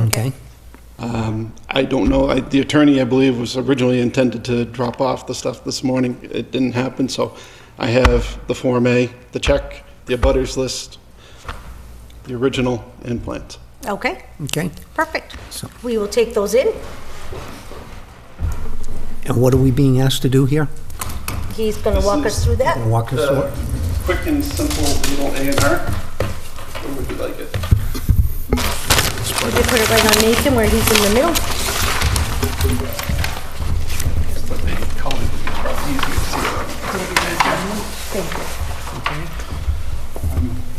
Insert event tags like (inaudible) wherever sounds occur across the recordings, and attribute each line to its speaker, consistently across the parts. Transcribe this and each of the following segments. Speaker 1: Okay.
Speaker 2: I don't know, I, the attorney, I believe, was originally intended to drop off the stuff this morning. It didn't happen, so I have the Form A, the check, the abutters list, the original, and plans.
Speaker 3: Okay,
Speaker 1: Okay.
Speaker 3: perfect.
Speaker 1: So-
Speaker 3: We will take those in.
Speaker 1: And what are we being asked to do here?
Speaker 3: He's going to walk
Speaker 2: This
Speaker 3: us
Speaker 2: is-
Speaker 3: through that.
Speaker 1: Walk us
Speaker 2: Uh,
Speaker 1: through?
Speaker 2: Quick and simple little A and R. Where would you like it?
Speaker 3: We could put it right on Nathan where he's in the middle.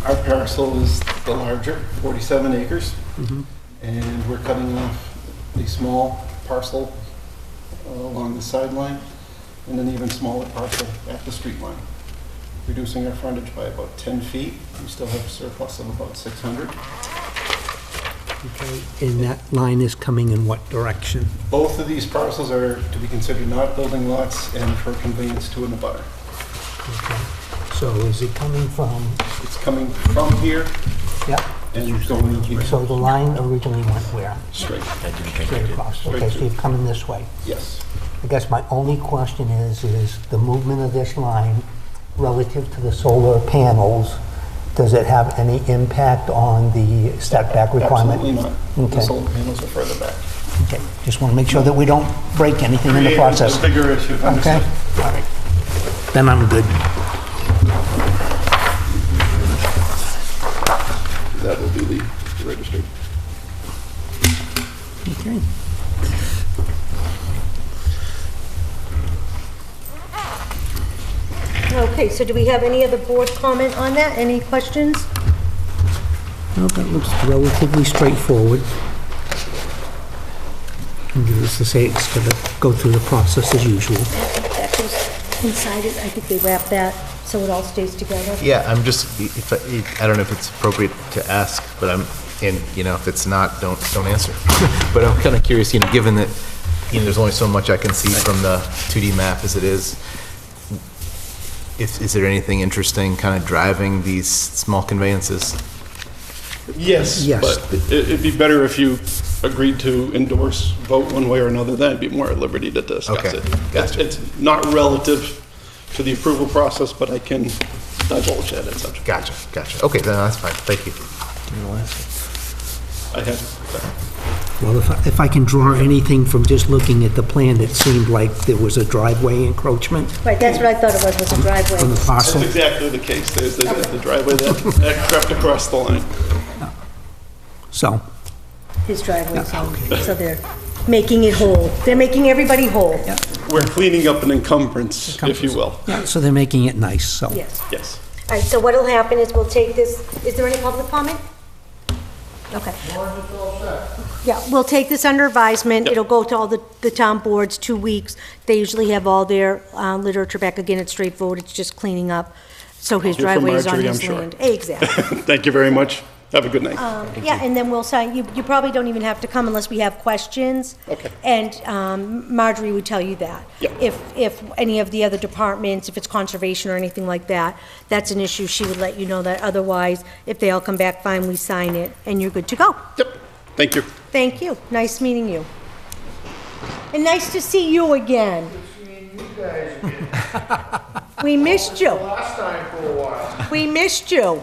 Speaker 2: Our parcel is the larger, 47 acres,
Speaker 1: Mm-hmm.
Speaker 2: and we're cutting off a small parcel uh, along the sideline and an even smaller parcel at the street line, reducing our frontage by about 10 feet. We still have surplus of about 600.
Speaker 1: And that line is coming in what direction?
Speaker 2: Both of these parcels are to be considered not building lots and for conveyance to an abutter.
Speaker 1: So is it coming from,
Speaker 2: It's coming from here
Speaker 1: yep,
Speaker 2: and going here.
Speaker 1: so the line originally went where?
Speaker 2: Straight,
Speaker 1: Straight across. Okay, so you're coming this way.
Speaker 2: yes.
Speaker 1: I guess my only question is, is the movement of this line relative to the solar panels, does it have any impact on the setback requirement?
Speaker 2: Absolutely not. The
Speaker 1: Okay.
Speaker 2: solar panels are further back.
Speaker 1: Okay, just want to make sure that we don't break anything in the process.
Speaker 2: Created a bigger issue,
Speaker 1: Okay,
Speaker 2: understood.
Speaker 1: all right. Then I'm good.
Speaker 2: That will be the registered.
Speaker 1: Okay.
Speaker 3: Okay, so do we have any other board comment on that? Any questions?
Speaker 1: Well, that looks relatively straightforward. And Needless to say, it's going to go through the process as usual.
Speaker 3: That goes inside it. I think they wrap that so it all stays together.
Speaker 4: Yeah, I'm just, if, I- I don't know if it's appropriate to ask, but I'm, and, you know, if it's not, don't, don't answer. (laughs) But I'm kind of curious, you know, given that, you know, there's only so much I can see from the 2D map as it is, if, is there anything interesting kind of driving these small conveyances?
Speaker 2: Yes,
Speaker 1: Yes.
Speaker 2: but it- it'd be better if you agreed to endorse, vote one way or another, then I'd be more at liberty to discuss
Speaker 4: Okay,
Speaker 2: it.
Speaker 4: gotcha.
Speaker 2: It's it's not relative to the approval process, but I can divulge that at such.
Speaker 4: Gotcha, gotcha. Okay, no, that's fine, thank you.
Speaker 2: I have,
Speaker 1: Well, if I- if I can draw anything from just looking at the plan, it seemed like there was a driveway encroachment
Speaker 3: Right, that's what I thought it was, was a
Speaker 1: on the
Speaker 3: driveway.
Speaker 1: parcel.
Speaker 2: that's exactly the case. There's the the driveway that that crept across the line.
Speaker 1: So,
Speaker 3: His driveway, so so they're making it whole. They're making everybody whole.
Speaker 2: We're cleaning up an encumbrance, if you will.
Speaker 1: yeah, so they're making it nice, so.
Speaker 3: Yes.
Speaker 2: Yes.
Speaker 3: All right, so what'll happen is we'll take this, is there any public comment? Okay. Yeah, we'll take this under advisement.
Speaker 2: Yep.
Speaker 3: It'll go to all the, the town boards, two weeks. They usually have all their uh, literature back. Again, it's straightforward, it's just cleaning up. So his
Speaker 2: Hear from
Speaker 3: driveway is on
Speaker 2: Marjorie,
Speaker 3: his
Speaker 2: I'm sure.
Speaker 3: land. Exactly.
Speaker 2: Thank you very much. Have a good night.
Speaker 3: Yeah, and then we'll sign, you, you probably don't even have to come unless we have questions.
Speaker 2: Okay.
Speaker 3: And um, Marjorie would tell you that.
Speaker 2: Yep.
Speaker 3: If, if any of the other departments, if it's conservation or anything like that, that's an issue, she would let you know that. Otherwise, if they all come back, fine, we sign it, and you're good to go.
Speaker 2: Yep, thank you.
Speaker 3: Thank you, nice meeting you. And nice to see you again. We missed you.
Speaker 5: (laughs) Last time for a while.
Speaker 3: We missed you.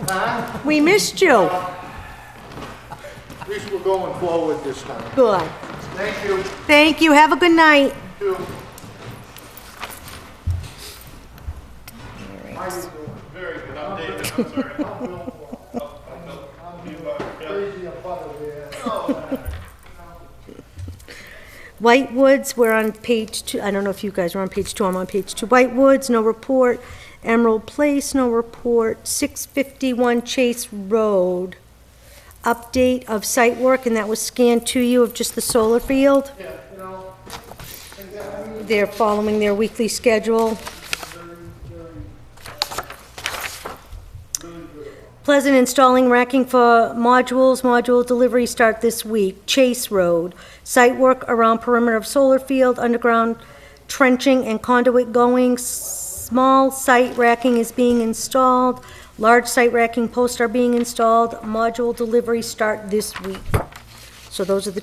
Speaker 3: We missed you.
Speaker 5: At least we're going forward this time.
Speaker 3: Good.
Speaker 5: Thank you.
Speaker 3: Thank you, have a good night.
Speaker 5: You too. How you doing? Very good. I'm David. I'm sorry. I'm Bill. I'm crazy about it, yeah.
Speaker 3: White Woods, we're on page two, I don't know if you guys are on page two, I'm on page two. White Woods, no report. Emerald Place, no report. 651 Chase Road, update of site work, and that was scanned to you of just the solar field? They're following their weekly schedule. Pleasant installing racking for modules, module delivery start this week. Chase Road, site work around perimeter of solar field, underground trenching and conduit going. Small site racking is being installed, large site racking posts are being installed, module delivery start this week. So those are the